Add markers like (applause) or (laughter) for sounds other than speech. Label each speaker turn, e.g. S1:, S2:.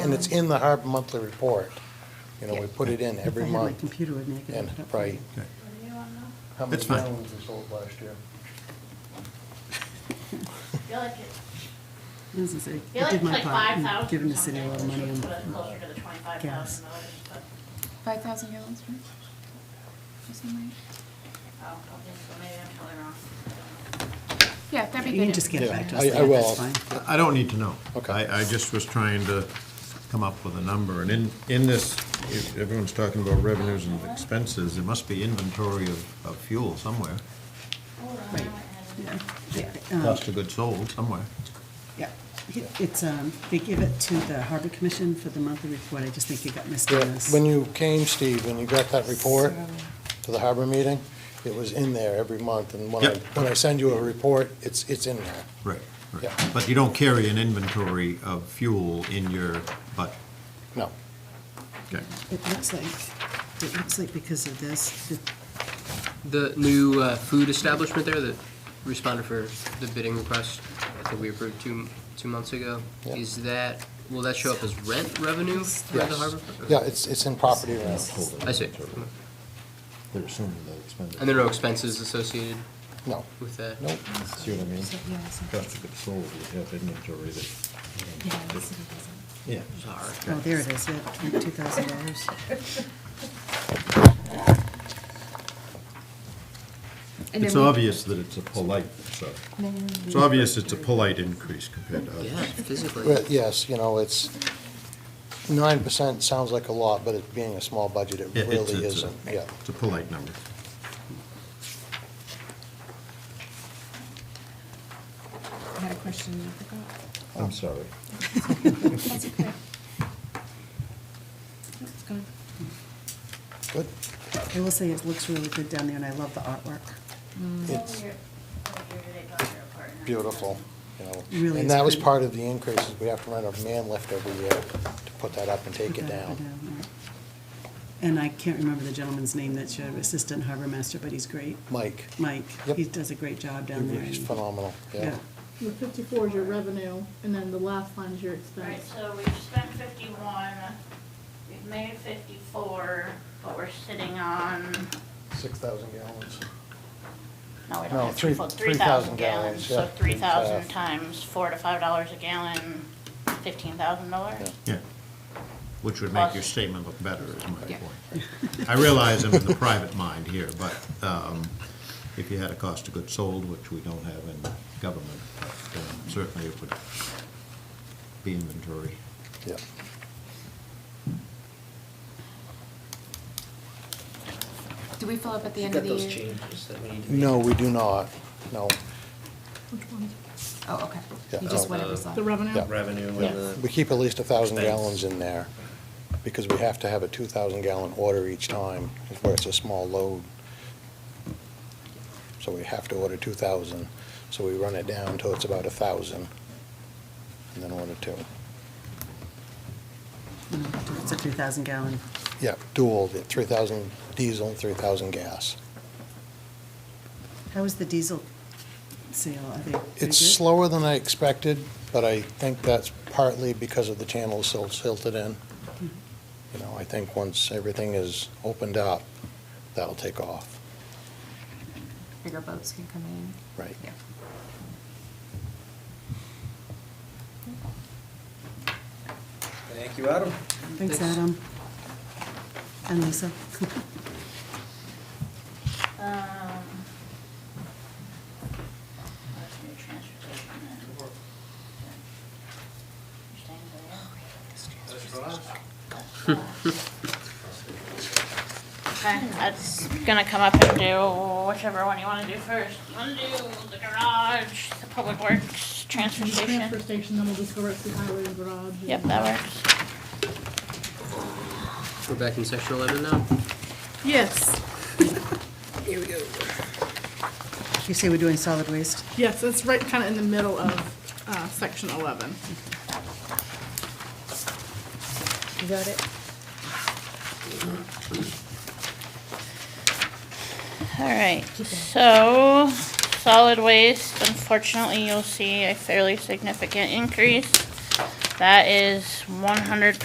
S1: And it's in the Harbor Monthly Report. You know, we put it in every
S2: If I had my
S1: month.
S2: computer with me, I could
S1: And
S2: look it up.
S1: probably,
S2: (laughs)
S1: how many
S3: It's fine.
S1: gallons we sold last year?
S4: Feel like it-
S2: This is a-
S4: feel
S2: I
S4: like
S2: did
S4: it's
S2: my
S4: like
S2: part
S4: five
S2: in
S4: thousand.
S2: giving the city a lot of money on
S4: Closer to the twenty-five
S2: gas.
S4: thousand dollars, but,
S5: Five thousand gallons, right? Or something.
S4: oh, I think so, maybe I'm totally wrong.
S5: Yeah, that'd be good.
S2: You can just get back to us.
S1: I- I
S2: later, that's
S1: will.
S2: fine.
S3: I don't need to know.
S1: Okay.
S3: I, I just was trying to come up with a number, and in, in this, if everyone's talking about revenues and expenses, there must be inventory of, of fuel somewhere,
S2: Yeah, yeah,
S5: Uh-huh.
S2: um,
S3: cost of goods sold somewhere.
S2: Yeah, He- it's, um, they give it to the Harbor Commission for the monthly report, I just think it got missed
S1: Yeah,
S2: on this.
S1: When you came, Steve, when you got that report to the Harbor meeting, it was in there every month. And when I,
S3: Yep.
S1: when I send you a report, it's, it's in there.
S3: Right, right.
S1: Yeah.
S3: But you don't carry an inventory of fuel in your butt.
S1: No.
S3: Okay.
S2: It looks like, it looks like because of this, that
S6: The new uh, food establishment there that responded for the bidding request, I think we approved two, two months ago,
S1: Yeah.
S6: is that, will that show up as rent revenue for the
S1: Yes.
S6: harbor?
S1: Yeah, it's, it's in property rent.
S6: I see.
S3: They're assuming they expended.
S6: And there are no expenses associated
S1: No.
S6: with that?
S1: Nope.
S3: See what I mean?
S5: So, yeah, so-
S3: Cost of goods sold, we have inventory that,
S5: Yeah, the city doesn't.
S3: yeah.
S6: Sorry.
S2: oh, there it is, yeah, twenty-two thousand dollars.
S5: And
S3: It's
S5: then we-
S3: obvious that it's a polite, so,
S5: then
S3: it's
S5: we-
S3: obvious it's a polite increase compared to
S6: Yeah,
S3: others.
S6: physically.
S1: But yes, you know, it's, nine percent sounds like a lot, but it being a small budget, it
S3: Yeah, it's-
S1: really
S3: it's a-
S1: isn't. Yeah.
S3: It's a polite number.
S5: I had a question and I forgot.
S3: I'm sorry.
S2: (laughs)
S5: That's okay. It's gone.
S1: Good.
S2: I will say it looks really good down there, and I love the artwork. Mm.
S1: It's beautiful, you know.
S2: Really
S1: And
S2: is
S1: that was
S2: pretty.
S1: part of the increase, is we have to rent a man lift every year to put that up and take it
S2: Put that up
S1: down.
S2: and right. And I can't remember the gentleman's name that's your assistant harbor master, but he's great,
S1: Mike,
S2: Mike.
S1: Yep.
S2: He does a great job down there.
S1: he's
S2: and-
S1: phenomenal, yeah.
S7: The fifty-four is your revenue, and then the last line is your
S4: Right,
S7: expense.
S4: so we've spent fifty-one, we've made fifty-four, but we're sitting on,
S1: Six thousand gallons.
S4: no, we
S1: No,
S4: don't have
S1: three-
S4: fifty-four, three
S1: 3,000
S4: thousand gallons.
S1: gallons, yeah,
S4: So three thousand
S1: times
S4: times four to five dollars a gallon, fifteen thousand
S1: Yeah.
S4: dollars?
S3: Yeah. Which would make your
S4: Awesome.
S3: statement look better, is my
S5: Yeah.
S3: point. I realize I'm in the private mind here, but um, if you had a cost of goods sold, which we don't have in government, but, um, certainly it would be inventory.
S1: Yeah.
S5: Do we fill up at the
S6: You
S5: end of
S6: got
S5: the
S6: those
S5: year?
S6: changes that we need to make?
S1: No, we do not, no,
S7: Which one?
S5: Oh, okay.
S1: Yeah,
S5: You just
S1: oh,
S5: whatever
S6: uh,
S5: side.
S7: The revenue?
S1: Yeah.
S6: Revenue
S7: Yeah.
S6: and the.
S1: we keep at least a thousand
S6: Thanks.
S1: gallons in there, because we have to have a two thousand gallon order each time, where it's a small load. So we have to order two thousand, so we run it down until it's about a thousand, and then order two.
S2: Mm, It's a three thousand gallon.
S1: Yeah, dual, the 3,000 diesel, and 3,000 gas.
S2: How is the diesel sale? Are they? pretty
S1: It's
S2: good?
S1: slower than I expected, but I think that's partly because of the channels so silted in. You know, I think once everything is opened up, that'll take off.
S5: Bigger boats can come in.
S1: Right.
S5: Yeah.
S8: Thank you, Adam.
S2: Thanks, Adam. And Lisa. (laughs)
S4: Um, that's new transportation and- Understand that? Okay, that's gonna come up and do whichever one you wanna do first. You wanna do the garage, the public works, transfer
S7: And the transfer
S4: station?
S7: station, then we'll just go right to the highway and garage. and-
S4: Yep, that works.
S6: We're back in section 11 now?
S7: Yes,
S2: You say we're doing solid waste?
S7: yes, it's right kind of in the middle of, uh, section eleven.
S2: You got it?
S4: All right, so solid waste, unfortunately, you'll see a fairly significant increase. That is one hundred